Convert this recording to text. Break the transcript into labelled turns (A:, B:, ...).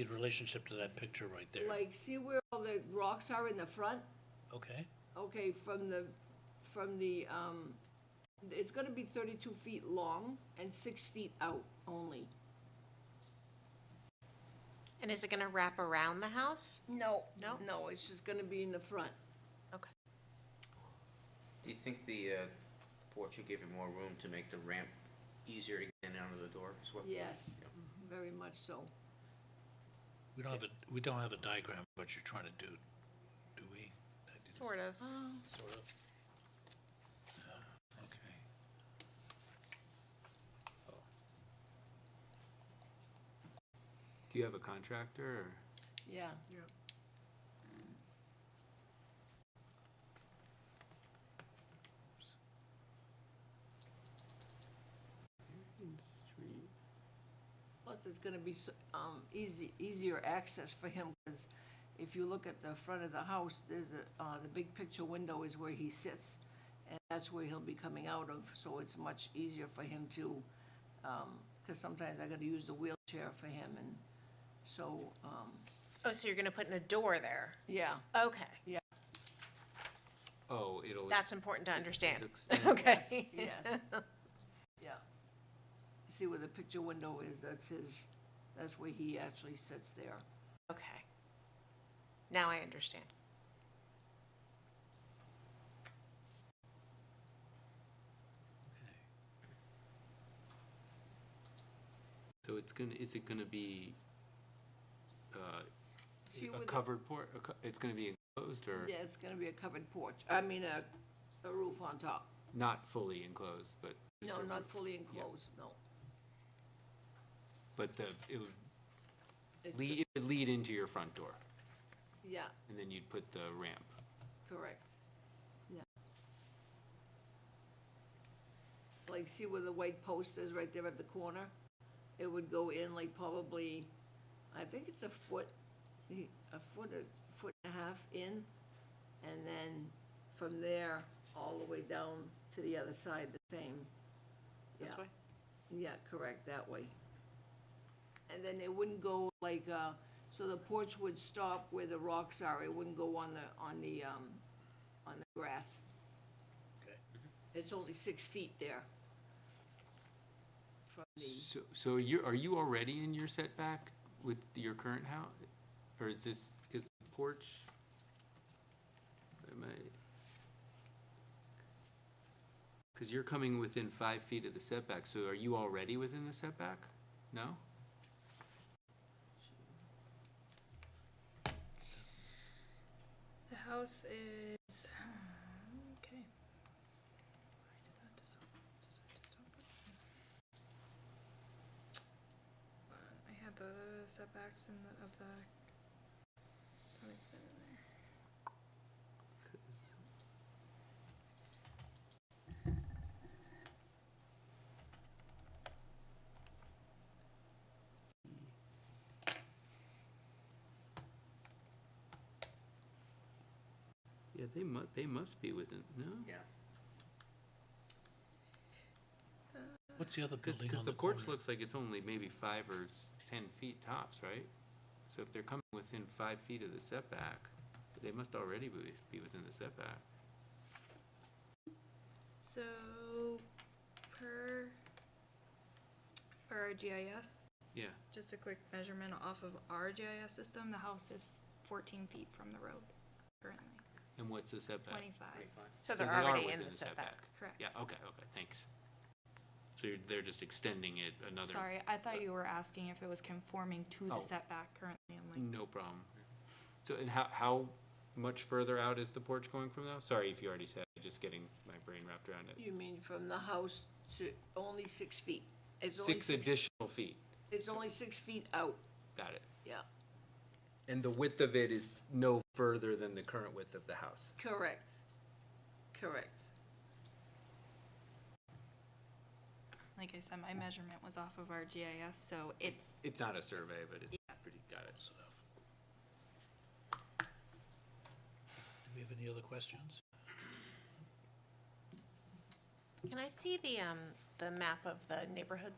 A: in relationship to that picture right there?
B: Like, see where all the rocks are in the front?
A: Okay,
B: Okay, from the, from the, um, it's gonna be thirty-two feet long and six feet out only.
C: And is it gonna wrap around the house?
B: No.
C: No?
B: No, it's just gonna be in the front.
D: Do you think the uh, porch will give you more room to make the ramp easier to get in and out of the door? Is what-
B: Yes,
D: Yeah.
B: very much so.
A: we don't have a, we don't have a diagram of what you're trying to do, do we? I didn't-
C: Sort of.
A: Sort of. Uh, Okay.
E: Do you have a contractor? Or?
B: Yeah. Plus, it's gonna be, s- um, easy, easier access for him, because if you look at the front of the house, there's a, uh, the big picture window is where he sits, and that's where he'll be coming out of, so it's much easier for him to, um 'cause because sometimes I gotta use the wheelchair for him, and so, um,
C: Oh, so you're gonna put in a door there?
B: yeah,
C: Okay,
E: Oh, it'll.
C: that's important to understand.
E: extend.
C: Okay.
B: Yes, yes. yeah. See where the picture window is, that's his, that's where he actually sits there.
C: Okay. Now I understand.
E: So it's gonna. Is it gonna be? Uh,
B: See where
E: a
B: the-
E: covered port. A co- it's gonna be enclosed or
B: Yeah, it's gonna be a covered porch, I mean, a, a roof on top.
E: not fully enclosed, but. just
B: No,
E: a
B: not
E: roof.
B: fully enclosed, no.
E: But the it would
B: It's
E: lead it would lead into your front door,
B: the- Yeah,
E: and then you'd put the ramp.
B: correct. Yeah. Like, see where the white post is right there at the corner? It would go in like probably, I think it's a foot, a foot, a foot and a half in. And then from there, all the way down to the other side, the same. Yeah.
D: This way?
B: Yeah, correct, that way. And then it wouldn't go like, uh, so the porch would stop where the rocks are, it wouldn't go on the, on the, um, on the grass.
A: Okay.
B: It's only six feet there. From the,
E: So so you are you already in your setback with your current house, or is this because the porch? Am I? Because you're coming within five feet of the setback, so are you already within the setback? No.
F: The house is, okay. Why did that just open, decide to stop it? Hold on, I had the setbacks in the, of the. thought I put it in there.
E: 'Cause- Yeah, they mu- they must be within no.
D: Yeah.
A: What's the other
E: Because
A: building on
E: the
A: the
E: porch
A: corner?
E: looks like it's only maybe five or s- ten feet tops, right? So if they're coming within five feet of the setback, they must already be, be within the setback.
F: So, per, per our GIS,
E: Yeah,
F: just a quick measurement off of our GIS system, the house is fourteen feet from the road currently,
E: and what's the setback?
F: twenty-five,
C: So
E: So
C: they're
E: they are
C: already in
E: within
C: the setback.
F: correct.
E: Yeah, okay, okay, thanks. So you're, they're just extending it another.
F: Sorry, I thought you were asking if it was conforming to
E: Oh. Mm.
F: the setback currently, I'm like,
E: No problem. So and how how much further out is the porch going from now? Sorry if you already said. Just getting my brain wrapped around it.
B: you mean from the house to only six feet? It's only
E: Six additional feet.
B: It's only six feet out,
E: Got it.
B: Yeah.
E: And the width of it is no further than the current width of the house.
B: correct, correct.
F: like I said, my measurement was off of our GIS, so it's
E: It's not a survey, but it's pretty, got it.
A: Close enough. Do we have any other questions?
C: Can I see the, um, the map of the neighborhood,